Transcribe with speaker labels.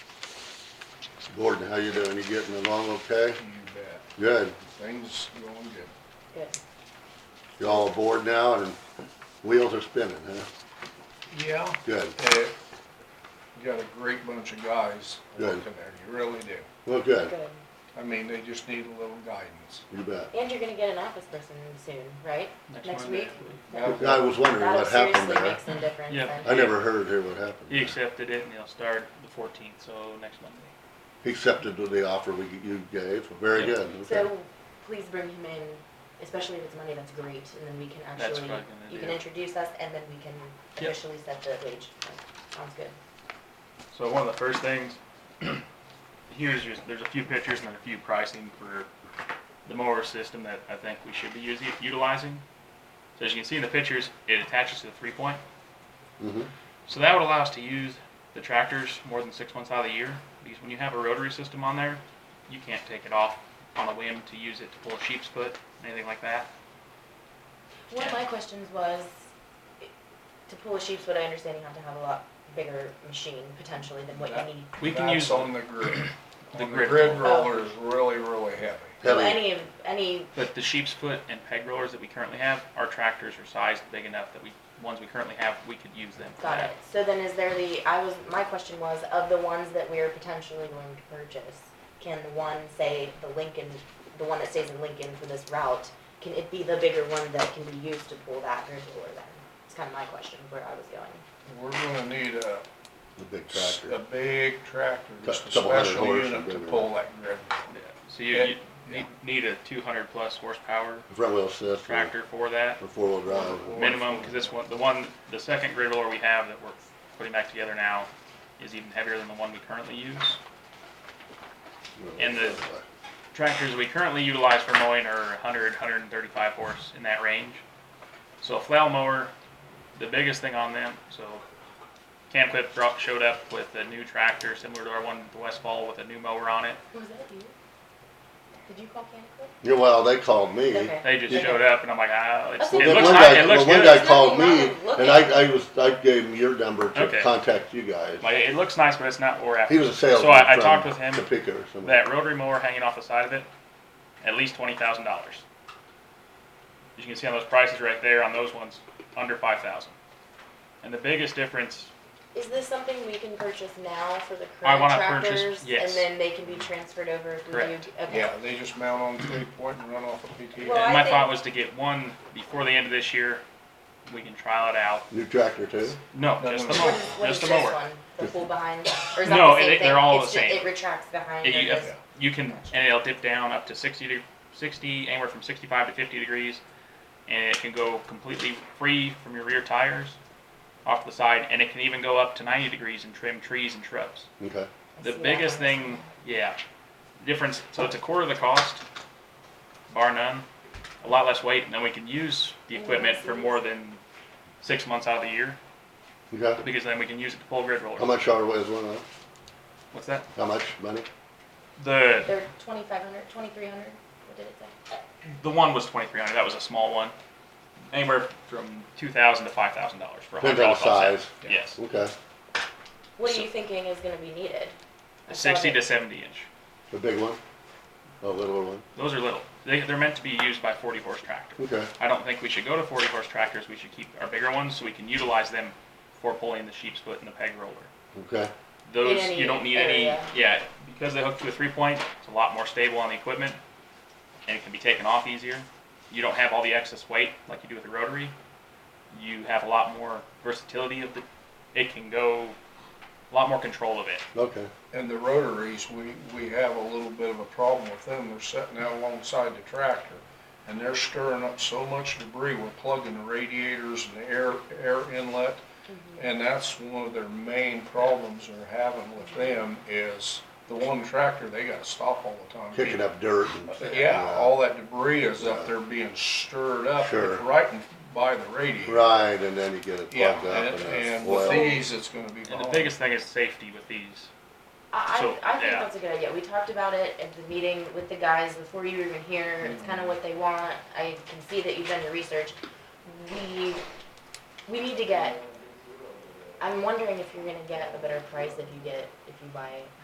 Speaker 1: Gordon, how you doing? You getting along okay?
Speaker 2: You bet.
Speaker 1: Good.
Speaker 2: Things going good.
Speaker 3: Good.
Speaker 1: Y'all aboard now and wheels are spinning, huh?
Speaker 2: Yeah.
Speaker 1: Good.
Speaker 2: Eh, You got a great bunch of guys
Speaker 1: Good.
Speaker 2: working there, you really do.
Speaker 1: Well, good.
Speaker 3: Good.
Speaker 2: I mean, they just need a little guidance.
Speaker 1: You bet.
Speaker 3: And you're gonna get an office person soon, right? Next
Speaker 4: Monday.
Speaker 3: week?
Speaker 1: I was wondering
Speaker 3: That'll
Speaker 1: what happened
Speaker 3: seriously
Speaker 1: there.
Speaker 3: make some difference.
Speaker 4: Yeah.
Speaker 3: then.
Speaker 1: I never heard here what happened.
Speaker 4: He accepted it and he'll start the fourteenth, so next Monday.
Speaker 1: He accepted the offer we, you gave. Very
Speaker 4: Yeah.
Speaker 1: good. Okay.
Speaker 3: So, please bring him in, especially if it's Monday, that's great, and then we can
Speaker 4: That's
Speaker 3: actually,
Speaker 4: what I'm gonna
Speaker 3: you can
Speaker 4: do.
Speaker 3: introduce us, and then we can
Speaker 4: Yep.
Speaker 3: officially set the wage. Sounds good.
Speaker 4: So one of the first things, here's just, there's a few pictures and then a few pricing for the mower system that I think we should be using, utilizing. So as you can see in the pictures, it attaches to the three point.
Speaker 1: Mhm.
Speaker 4: So that would allow us to use the tractors more than six months out of the year, because when you have a rotary system on there, you can't take it off on a whim to use it to pull a sheep's foot, anything like that.
Speaker 3: One of
Speaker 4: Yeah.
Speaker 3: my questions was, i- to pull a sheep's foot, I understand you have to have a lot bigger machine potentially than what
Speaker 2: That-
Speaker 3: you need.
Speaker 4: We can
Speaker 2: That's
Speaker 4: use
Speaker 2: on the grid.
Speaker 4: the
Speaker 2: On the
Speaker 4: grid
Speaker 2: grid
Speaker 3: roller.
Speaker 2: roller is really, really heavy.
Speaker 3: So
Speaker 1: Heavy.
Speaker 3: any of, any,
Speaker 4: But the sheep's foot and peg rollers that we currently have, our tractors are sized big enough that we, ones we currently have, we could use them for
Speaker 3: got
Speaker 4: that.
Speaker 3: it. So then is there the, I was, my question was, of the ones that we're potentially going to purchase, can the one, say, the Lincoln, the one that stays in Lincoln for this route, can it be the bigger one that can be used to pull that grid roller then? It's kind of my question, where I was going.
Speaker 2: We're gonna need a,
Speaker 1: The big
Speaker 2: a
Speaker 1: tractor.
Speaker 2: big tractor, just a
Speaker 1: Couple hundred
Speaker 2: special
Speaker 1: horse,
Speaker 2: unit to
Speaker 1: maybe.
Speaker 2: pull that grid.
Speaker 4: Yeah. So you,
Speaker 2: Yeah,
Speaker 4: you
Speaker 2: yeah.
Speaker 4: need, need a two hundred plus horsepower
Speaker 1: Front wheel assist. or-
Speaker 4: tractor for that,
Speaker 1: Or four wheel drive.
Speaker 4: minimum, cause this one, the one, the second grid roller we have that we're putting back together now is even heavier than the one we currently use. And the- Tractors we currently utilize for mowing are 100, 135 horse in that range. So a flail mower, the biggest thing on them, so Camquip brought, showed up with a new tractor similar to our one at the Westfall with a new mower on it.
Speaker 3: Was that you? Did you call Canada
Speaker 1: Yeah, well, they called me.
Speaker 3: Okay.
Speaker 4: They just showed up and I'm like, ah, it's,
Speaker 3: Well,
Speaker 4: it
Speaker 1: Well,
Speaker 4: looks
Speaker 1: one
Speaker 4: nice,
Speaker 1: guy-
Speaker 4: it looks
Speaker 1: well, One
Speaker 4: good.
Speaker 1: guy called
Speaker 3: Nothing wrong
Speaker 1: me,
Speaker 3: with looking.
Speaker 1: and I, I was, I gave him your number to
Speaker 4: Okay.
Speaker 1: contact you guys.
Speaker 4: Like, it looks nice, but it's not what we're after.
Speaker 1: He was a salesman.
Speaker 4: So I, I
Speaker 1: from
Speaker 4: talked with him,
Speaker 1: Topeka or something.
Speaker 4: that rotary mower hanging off the side of it, at least $20,000. As you can see on those prices right there, on those ones, under 5000 And the biggest difference
Speaker 3: Is this something we can purchase now for the
Speaker 4: I
Speaker 3: current
Speaker 4: wanna
Speaker 3: tractors?
Speaker 4: purchase-
Speaker 3: And
Speaker 4: yes.
Speaker 3: then they can be transferred over if we do?
Speaker 4: Correct.
Speaker 3: Okay.
Speaker 2: Yeah, they just mount on three point and run off a PTA.
Speaker 3: Well, I
Speaker 4: And my
Speaker 3: think-
Speaker 4: thought was to get one before the end of this year. We can trial it out.
Speaker 1: New tractor too?
Speaker 4: No,
Speaker 2: No,
Speaker 4: just
Speaker 2: no,
Speaker 4: the
Speaker 2: no.
Speaker 3: What
Speaker 4: mower.
Speaker 3: is, what is
Speaker 4: Oh, Just the
Speaker 3: this
Speaker 4: mower.
Speaker 3: one? The pull behind? Or is that
Speaker 4: No,
Speaker 3: the same
Speaker 4: it-
Speaker 3: thing?
Speaker 4: they're all
Speaker 3: It's
Speaker 4: the
Speaker 3: ju-
Speaker 4: same.
Speaker 3: It retracts behind
Speaker 4: It-
Speaker 3: and
Speaker 4: you-
Speaker 3: goes,
Speaker 2: yeah.
Speaker 4: You can, and it'll dip down up to 60 to 60, anywhere from 65 to 50 degrees, and it can go completely free from your rear tires off the side, and it can even go up to 90 degrees and trim trees and shrubs.
Speaker 1: Okay.
Speaker 3: I see
Speaker 4: The
Speaker 3: that
Speaker 4: biggest
Speaker 3: one.
Speaker 4: thing, yeah, difference. So it's a quarter of the cost, bar none. A lot less weight, and then we can use the
Speaker 3: Yeah, I
Speaker 4: equipment for
Speaker 3: see.
Speaker 4: more than six months out of the year.
Speaker 1: Okay.
Speaker 4: because then we can use it to pull grid
Speaker 1: How
Speaker 4: rollers.
Speaker 1: much are, is one of,
Speaker 4: What's that?
Speaker 1: how much money?
Speaker 4: The
Speaker 3: They're twenty-five hundred, twenty-three hundred, what did it say?
Speaker 4: the one was twenty three hundred. That was a small one, anywhere from two thousand to five thousand dollars for a
Speaker 1: Depends on the
Speaker 4: hydraulic offset.
Speaker 1: size.
Speaker 4: Yes,
Speaker 1: Okay.
Speaker 3: What
Speaker 4: So-
Speaker 3: are you thinking is gonna be needed? I saw
Speaker 4: sixty
Speaker 3: that-
Speaker 4: to seventy inch.
Speaker 1: The big one? A little one?
Speaker 4: Those are little. They, they're meant to be used by forty horse tractors.
Speaker 1: Okay.
Speaker 4: I don't think we should go to forty horse tractors. We should keep our bigger ones so we can utilize them for pulling the sheep's foot and the peg roller.
Speaker 1: Okay.
Speaker 4: Those
Speaker 3: any
Speaker 4: you don't need
Speaker 3: area.
Speaker 4: any. Yeah, because they hook to a three point. It's a lot more stable on the equipment, and it can be taken off easier. You don't have all the excess weight like you do with the rotary. You have a lot more versatility of the. It can go, a lot more control of it.
Speaker 1: Okay.
Speaker 2: And the rotaries, we, we have a little bit of a problem with them. They're sitting out alongside the tractor and they're stirring up so much debris. We're plugging the radiators and the air, air inlet. And that's one of their main problems they're having with them is the one tractor, they gotta stop all the time.
Speaker 1: Kicking up dirt and.
Speaker 2: Yeah, all that debris is up
Speaker 1: Yeah.
Speaker 2: there being stirred up
Speaker 1: Sure.
Speaker 2: right by the radiator.
Speaker 1: Right, and then you get it
Speaker 2: Yeah,
Speaker 1: plugged up
Speaker 2: and,
Speaker 1: and
Speaker 2: and
Speaker 1: then
Speaker 2: with
Speaker 1: oil.
Speaker 2: these, it's gonna be
Speaker 4: And the
Speaker 2: gone.
Speaker 4: biggest thing is safety with these.
Speaker 3: I,
Speaker 4: So,
Speaker 3: I, I think
Speaker 4: yeah.
Speaker 3: that's a good idea. We talked about it at the meeting with the guys before you were even here. It's kind of what they want. I can see that you've done your research. We, we need to get, I'm wondering if you're gonna get a better price if you get, if you buy